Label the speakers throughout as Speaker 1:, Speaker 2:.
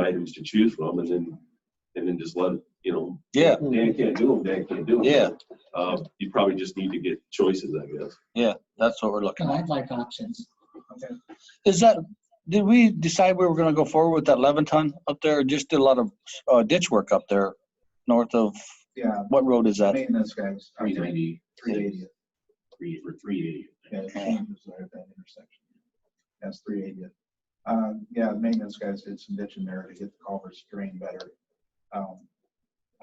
Speaker 1: opportunities to choose from and then, and then just let, you know,
Speaker 2: Yeah,
Speaker 1: Dan can't do them, Dan can't do them.
Speaker 2: Yeah.
Speaker 1: Uh, you probably just need to get choices, I guess.
Speaker 2: that's what we're looking
Speaker 3: And
Speaker 2: at.
Speaker 3: I'd like options.
Speaker 2: Is that, did we decide we were gonna go forward with that eleven ton up there? or Just did a lot of uh, ditch work up there north of,
Speaker 4: Yeah,
Speaker 2: what road is that?
Speaker 4: maintenance guys.
Speaker 5: Three ninety,
Speaker 4: Three eighty,
Speaker 5: three, or three eighty.
Speaker 4: yeah, it changes there at that intersection. That's three eighty. Uh, yeah, maintenance guys did some ditching there to get the culverts drained better. Um,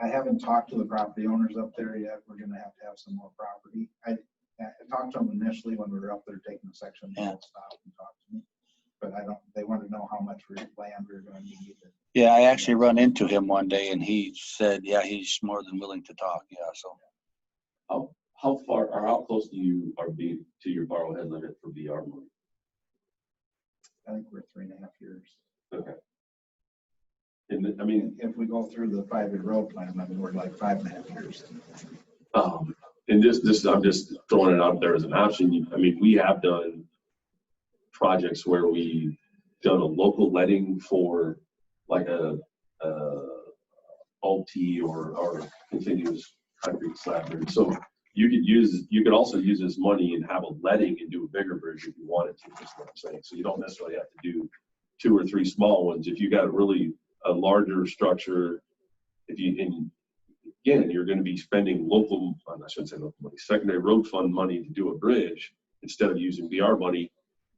Speaker 4: I haven't talked to the property owners up there yet. We're gonna have to have some more property. I, I talked to them initially when we were up there taking the section. They all stopped and talked to me. But I don't, they wanted to know how much re- land we we're gonna need.
Speaker 2: Yeah, I actually run into him one day and he said, yeah, he's more than willing to talk. Yeah, so.
Speaker 1: How, how far, or how close do you are be to your borrow head limit for VR money?
Speaker 4: I think we're three and a half years.
Speaker 1: And then, I mean,
Speaker 4: If we go through the five-year road plan, I mean, we're like five and a half years.
Speaker 1: Um, and this, this, I'm just throwing it out there as an option. You- I mean, we have done projects where we done a local letting for like a, uh, OT or, or continuous concrete slab. bridge. So you could use, you could also use this money and have a letting and do a bigger bridge if you wanted to, is what I'm saying. So you don't necessarily have to do two or three small ones. If you got really a larger structure, if you, and again, you're gonna be spending local, uh, I shouldn't say local money, secondary road fund money to do a bridge instead of using VR money.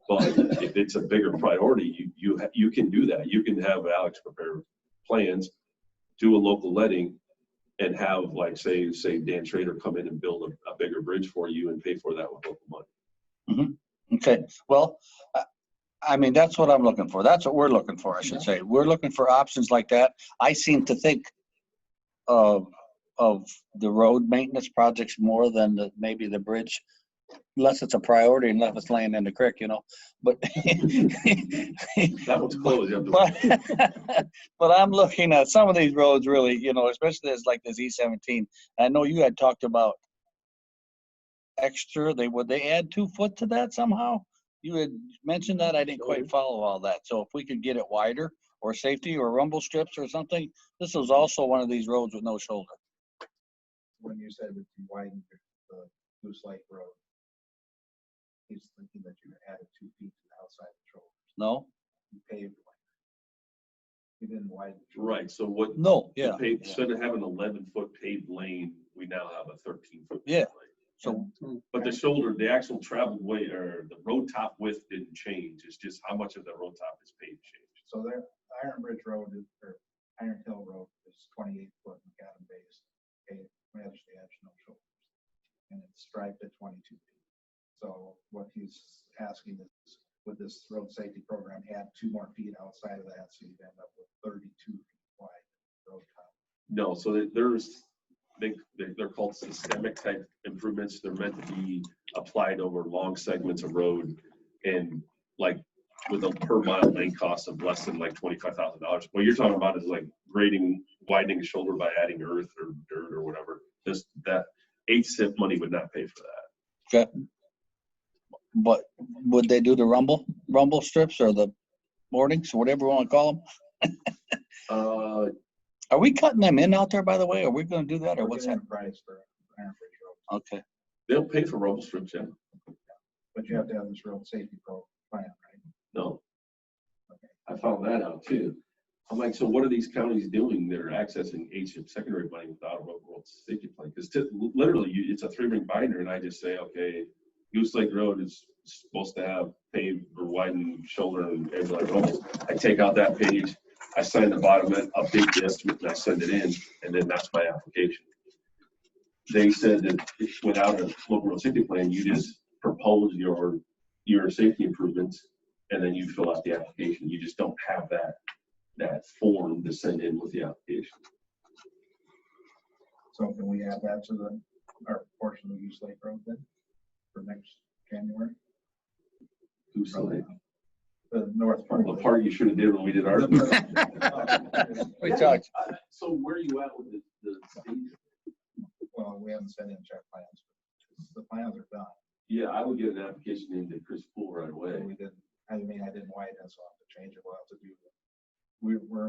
Speaker 1: But if it's a bigger priority, you, you, ha- you can do that. You can have Alex prepare plans, do a local letting and have like, say, say Dan Schrader come in and build a, a bigger bridge for you and pay for that with local money.
Speaker 2: Okay, well, I- I mean, that's what I'm looking for. That's what we're looking for, I should say. We're looking for options like that. I seem to think of, of the road maintenance projects more than the, maybe the bridge, unless it's a priority, unless it's laying in the creek, you know, but.
Speaker 1: That one's closed. you have to-
Speaker 2: But, but I'm looking at some of these roads really, you know, especially as like this E seventeen. I know you had talked about extra, they, would they add two foot to that somehow? You had mentioned that, I didn't quite follow all that. So if we could get it wider or safety or rumble strips or something, this was also one of these roads with no shoulder.
Speaker 4: when you said that you widened the Goose Lake Road. He's thinking that you added two feet to the outside shoulder,
Speaker 2: No?
Speaker 4: you paved one. You didn't widen. the shoulder.
Speaker 1: Right, so what,
Speaker 2: No,
Speaker 1: the
Speaker 2: yeah.
Speaker 1: pa- instead of having eleven foot paved lane, we now have a thirteen foot.
Speaker 2: Yeah.
Speaker 1: lane.
Speaker 2: So,
Speaker 1: But the shoulder, the actual traveled way or the road top width didn't change. It's just how much of the road top is paved changed.
Speaker 4: So there, Iron Bridge Road is, or Iron Hill Road is twenty-eight foot macadam base, okay, we actually have no shoulders. And it's striped at twenty-two feet. So what he's asking is, would this road safety program add two more feet outside of that, so you'd end up with thirty-two feet wide road top?
Speaker 1: No, so there- there's, they, they- they're called systemic type improvements. They're meant to be applied over long segments of road. And like with a per mile lane cost of less than like twenty-five thousand dollars. What you're talking about is like grading, widening the shoulder by adding earth or dirt or whatever. This, that eight cent money would not pay for that.
Speaker 2: but would they do the rumble, rumble strips or the boardings, whatever you want to call them?
Speaker 1: Uh,
Speaker 2: Are we cutting them in out there, by the way? Are we gonna do that or what's that?
Speaker 4: We're getting a Price for Iron Bridge Road,
Speaker 2: Okay,
Speaker 1: they'll pay for rumble strips, yeah.
Speaker 4: but you have to have this road safety pro plan, right?
Speaker 1: No. I found that out too. I'm like, so what are these counties doing that are accessing HIP secondary money without a road world safety plan? Because literally, you, it's a three ring binder and I just say, okay, Goose Lake Road is supposed to have paved or widened shoulder and edge like rumble. I take out that page, I sign the bottom end, update the estimate and I send it in, and then that's my application. They said that if- without a local road safety plan, you just propose your, your safety improvements and then you fill out the application. You just don't have that, that form to send in with the application.
Speaker 4: So can we add that to the, our portion of Goose Lake Road then, for next January?
Speaker 1: Who's the,
Speaker 4: The north part.
Speaker 1: the part you should have did when we did our.
Speaker 2: we talked.
Speaker 1: So where are you at with the, the state?
Speaker 4: Well, we haven't sent in check plans. The plans are done,
Speaker 1: Yeah, I would get an application into Chris Pool right
Speaker 4: but
Speaker 1: away.
Speaker 4: we didn't, I mean, I didn't widen, so I'll have to change it, we'll have to do. We, we're